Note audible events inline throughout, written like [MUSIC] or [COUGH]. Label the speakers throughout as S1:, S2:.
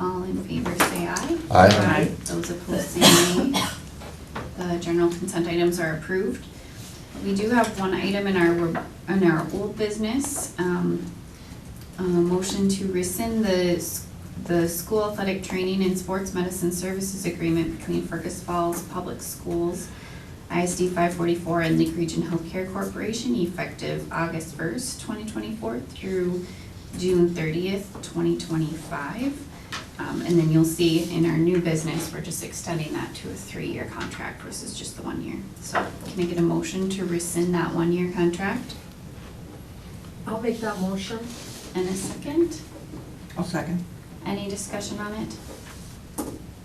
S1: All in favor, say aye.
S2: Aye.
S3: Aye.
S1: Those opposed, say nay. The general consent items are approved. We do have one item in our, in our old business. um, A motion to rescind the, s- the school athletic training and sports medicine services agreement between Fergus Falls Public Schools, ISD five forty-four, and Lake Region Healthcare Corporation effective August first, twenty twenty-four through June thirtieth, twenty twenty-five. Um, and then you'll see in our new business, we're just extending that to a three-year contract versus just the one year. So can I get a motion to rescind that one-year contract
S3: I'll make that motion.
S1: and a second?
S4: I'll second.
S1: Any discussion on it?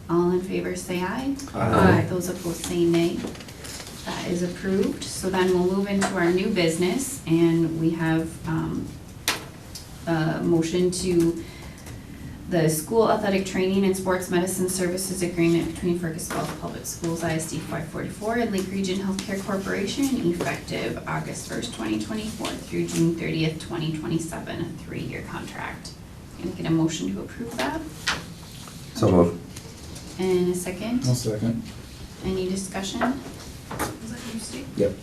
S1: All in favor, say aye.
S3: Aye.
S1: Those opposed, say nay. That is approved. So then we'll move into our new business, and we have um, a motion to the School Athletic Training and Sports Medicine Services Agreement between Fergus Falls Public Schools ISD 544 and Lake Region Healthcare Corporation effective August 1st, 2024 through June 30th, 2027, a three-year contract. Can I get a motion to approve that?
S2: So moved.
S1: And a second?
S5: I'll second.
S1: Any discussion?
S5: Yep.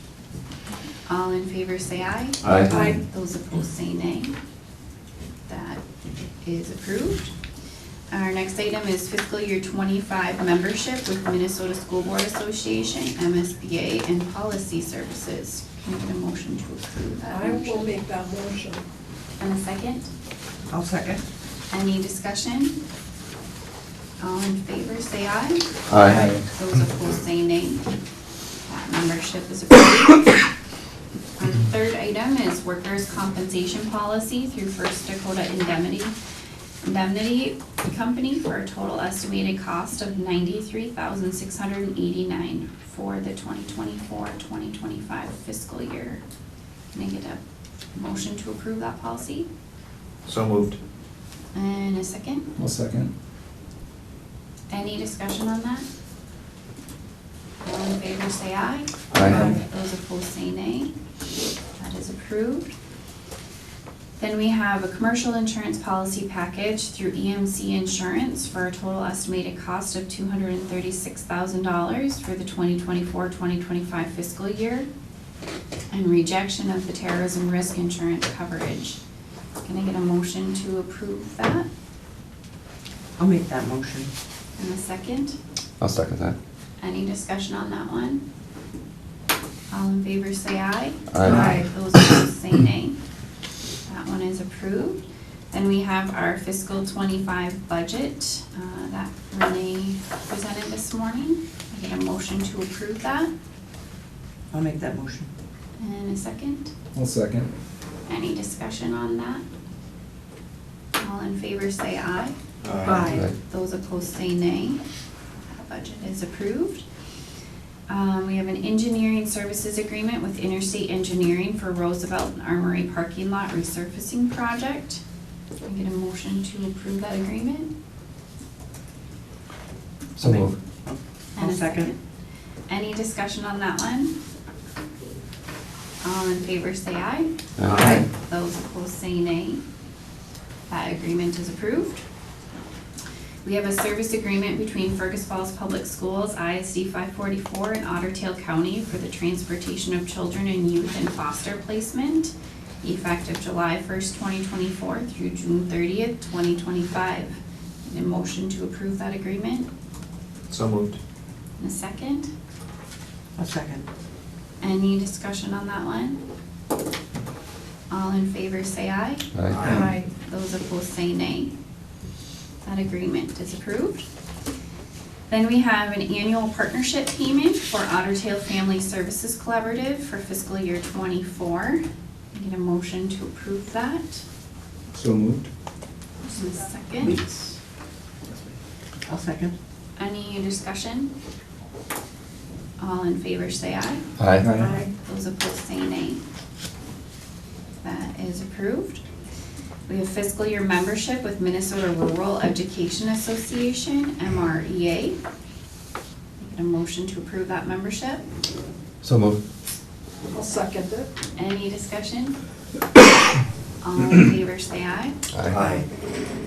S1: All in favor, say aye.
S2: Aye.
S3: Aye.
S1: Those opposed, say nay. That is approved. Our next item is fiscal year twenty-five membership with Minnesota School Board Association, MSBA, and Policy Services. Can I get a motion to approve that?
S3: I will
S1: motion?
S3: make that motion.
S1: And a second?
S4: I'll second.
S1: Any discussion? All in favor, say aye.
S2: Aye.
S1: Those opposed, say nay. That [COUGHS] membership is approved. Our third item is workers' compensation policy through First Dakota Indemnity, Indemnity Company for a total estimated cost of ninety-three thousand six hundred and eighty-nine for the 2024-2025 fiscal year. Can I get a motion to approve that policy?
S2: So moved.
S1: And a second?
S5: I'll second.
S1: Any discussion on that? All in favor, say aye.
S2: Aye.
S1: Those opposed, say nay. That is approved. Then we have a commercial insurance policy package through EMC Insurance for a total estimated cost of two hundred and thirty-six thousand dollars for the 2024-2025 fiscal year and rejection of the terrorism risk insurance coverage. Can I get a motion to approve that?
S4: I'll make that motion.
S1: And a second?
S2: I'll second that.
S1: Any discussion on that one? All in favor, say aye.
S2: Aye.
S1: Those opposed, say nay. That one is approved. Then we have our fiscal twenty-five budget uh, that Renee presented this morning. I get a motion to approve that
S4: I'll make that motion.
S1: and a second.
S5: I'll second.
S1: Any discussion on that? All in favor, say aye.
S2: Aye.
S1: Those opposed say nay. That budget is approved. Um, we have an engineering services agreement with Interstate Engineering for Roosevelt and Armory Parking Lot Resurfacing Project. Can I get a motion to approve that agreement?
S2: So moved.
S1: And
S4: I'll
S1: a
S4: second.
S1: Any discussion on that one? All in favor, say aye.
S2: Aye.
S1: Those opposed say nay. That agreement is approved. We have a service agreement between Fergus Falls Public Schools, ISD 544, and Otter Tail County for the transportation of children and youth in foster placement, effective July 1st, 2024 through June 30th, 2025. Need a motion to approve that agreement?
S2: So moved.
S1: And a second?
S4: I'll second.
S1: Any discussion on that one? All in favor, say aye.
S2: Aye.
S3: Aye.
S1: Those opposed say nay. That agreement is approved. Then we have an annual partnership payment for Otter Tail Family Services Collaborative for fiscal year twenty-four. Need a motion to approve that.
S5: So moved.
S1: Just a second.
S4: I'll second.
S1: Any discussion? All in favor, say aye.
S2: Aye.
S3: Aye.
S1: Those opposed say nay. That is approved. We have fiscal year membership with Minnesota Rural Education Association, MREA. Get a motion to approve that membership.
S2: So moved.
S3: I'll second it.
S1: Any discussion? All in favor, say aye.
S2: Aye.